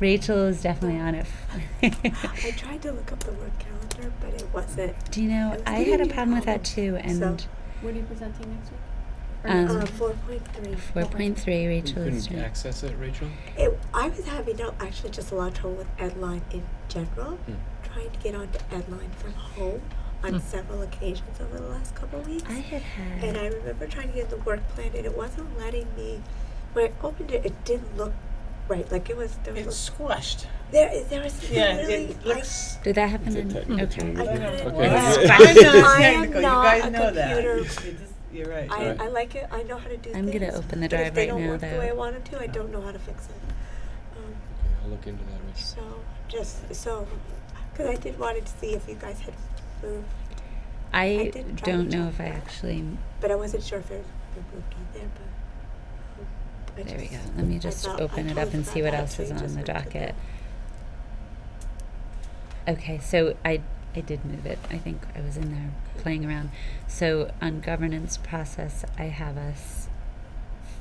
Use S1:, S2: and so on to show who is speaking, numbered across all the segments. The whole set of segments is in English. S1: Rachel is definitely on it.
S2: I tried to look up the word calendar, but it wasn't.
S1: Do you know, I had a problem with that too, and
S2: So-
S3: What are you presenting next week? Or
S1: Um,
S3: next
S2: Uh,
S3: week?
S2: four point three.
S1: four point three,
S4: You
S1: Rachel is
S4: couldn't
S1: doing.
S4: access it, Rachel?
S2: It, I was having no, actually just a lot of trouble with Edline in general.
S4: Hmm.
S2: Trying to get onto Edline from home on several occasions over the last couple of weeks.
S1: Hmm. I had had,
S2: And I remember trying to get the work plan, and it wasn't letting me. When I opened it, it didn't look right. Like it was. There was,
S5: It's squashed.
S2: a- there, there was something
S5: Yeah,
S2: really.
S5: it looks.
S1: did that happen?
S4: It's a
S1: in-
S4: technical
S1: Okay.
S4: term.
S2: I, I
S4: Yeah.
S2: couldn't.
S4: Okay.
S5: Wow.
S1: Wow.
S5: I know it's
S2: I am
S5: technical. You
S2: not
S5: guys
S2: a
S5: know that.
S2: computer.
S5: You just- You're right.
S2: I,
S4: Right.
S2: I like it. I know how to do
S1: I'm
S2: things.
S1: gonna open the
S2: but
S1: drive
S2: if they
S1: right
S2: don't
S1: now,
S2: work the way I
S1: though.
S2: want 'em to. I don't know how to fix it. Um,
S4: Okay, I'll look into that, Rachel.
S2: so just so, because I did wanted to see if you guys had moved,
S1: I
S2: did try to
S1: don't know
S2: check
S1: if I
S2: that.
S1: actually,
S2: but I wasn't sure if it was moved on there. But um, I
S1: there we
S2: just-
S1: go. Let me
S2: I
S1: just
S2: thought- I
S1: open it
S2: totally
S1: up and see
S2: forgot
S1: what
S2: that,
S1: else
S2: so
S1: is
S2: you
S1: on
S2: just
S1: the
S2: went to
S1: docket. Okay, so I, I did move it. I think I was in there playing around. So on governance process, I have us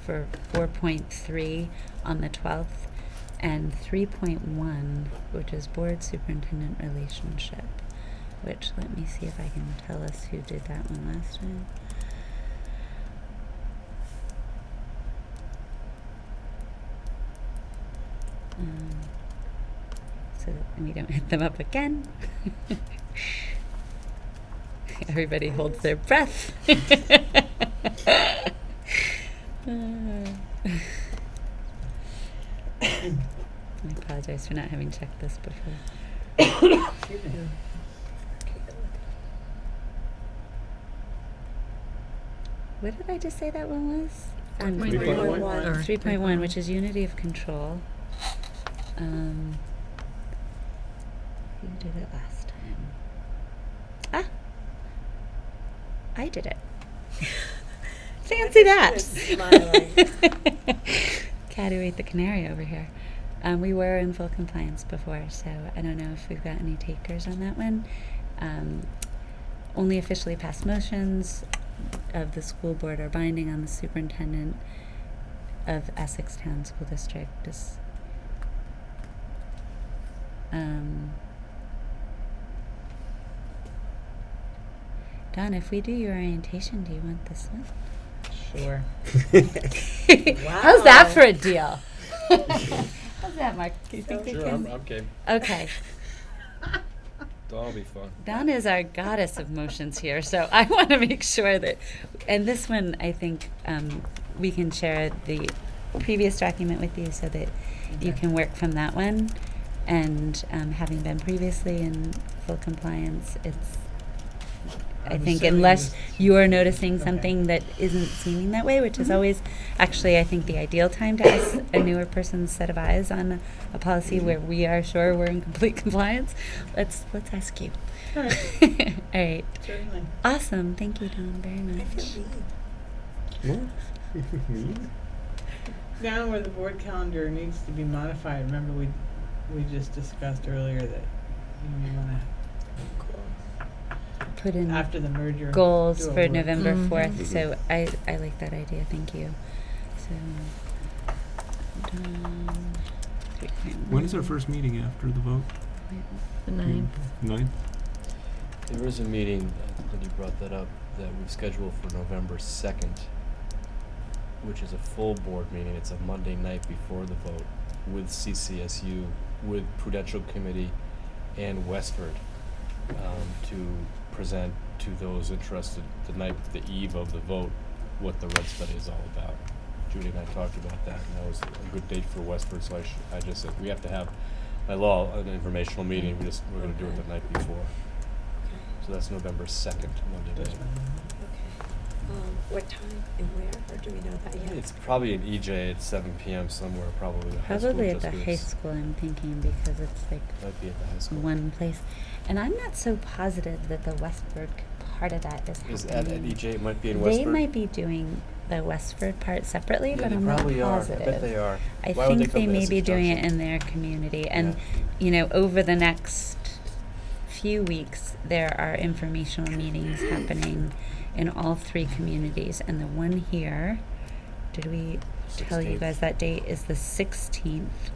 S1: for four point three on the twelfth and three point one, which is board superintendent relationship. Which let me see if I can tell us who did that one last time. Um, so that we don't hit them up again. Everybody holds their breath. I apologize for not having checked this before.
S5: Excuse me.
S1: What did I just say that one was? Um,
S4: 3.1.
S2: Or
S1: 3.1, which is unity of control. Um, who did it last time? Ah, I did it. Fancy that.
S2: she was
S1: Cat who ate the canary over here. Um, we were in full compliance before, so I don't know if we've got any takers on that one. Um, only officially passed motions of the school board are binding on the superintendent of Essex Town School District. Is, um, Don, if we do your orientation, do you want this one?
S5: Sure.
S1: How's that for a deal? How's that, Mark? Do you think we
S4: Sure, I'm,
S1: can?
S4: I'm game.
S1: Okay.
S4: That'll be fun.
S1: Don is our goddess of motions here, so I want to make sure that, and this one, I think um, we can share the previous document with you so that you
S5: Okay.
S1: can work from that one. And um, having been previously in full compliance, it's, I
S5: I'm
S1: think,
S5: assuming
S1: unless
S5: this-
S1: you are noticing
S5: Okay. Mm-hmm.
S1: something that isn't seeming that way, which is always actually, I think, the ideal time to ask a newer person's set of eyes on a, a policy
S5: Mm-hmm.
S1: where we are sure we're in complete compliance. Let's let's ask you.
S5: All right.
S1: All right.
S5: Certainly.
S1: Awesome. Thank you, Don, very
S2: I
S1: much.
S2: feel mean.
S5: Down where the board calendar needs to be modified, remember we, we just discussed earlier that you may wanna,
S1: Put in
S5: after the merger.
S1: goals
S5: do a
S1: for
S5: work-
S1: November
S6: Mm-hmm.
S7: Mhm.
S1: 4th. So I, I like that idea. Thank you. So, Don, 3.1.
S6: When is our first meeting after the vote?
S7: The ninth.
S6: Ninth?
S4: There is a meeting, I think that you brought that up, that we've scheduled for November second, which is a full board meeting. It's a Monday night before the vote with CCSU, with Prudential Committee and Westford, um, to present to those interested the night, the eve of the vote, what the red study is all about. Judy and I talked about that, and that was a good date for Westford, so I sh I just said, we have to have, by law, an informational meeting, we just, we're gonna do it the night before. So that's November second, Monday night.
S2: Okay. Um, what time and where, or do we know that yet?
S4: It's probably an EJ at seven PM somewhere, probably the high school.
S1: Probably at
S4: just
S1: the high
S4: 'cause
S1: school, I'm thinking, because it's like
S4: it Might be at the high school.
S1: one place. And I'm not so positive that the Westford part of that is
S4: Is at, E at
S1: happening.
S4: EJ, it might be in
S1: They
S4: Westford.
S1: might be doing the Westford part separately,
S4: Yeah,
S1: but
S4: they
S1: I'm not
S4: probably are.
S1: positive.
S4: I bet they are.
S1: I
S4: Why would
S1: think
S4: come
S1: they
S4: to
S1: may
S4: this
S1: be doing it
S4: junction?
S1: in their community, and
S4: Yeah.
S1: you know, over the next few weeks, there are informational meetings happening in all three communities, and the one here, did we tell you
S4: 16th.
S1: guys that date is the sixteenth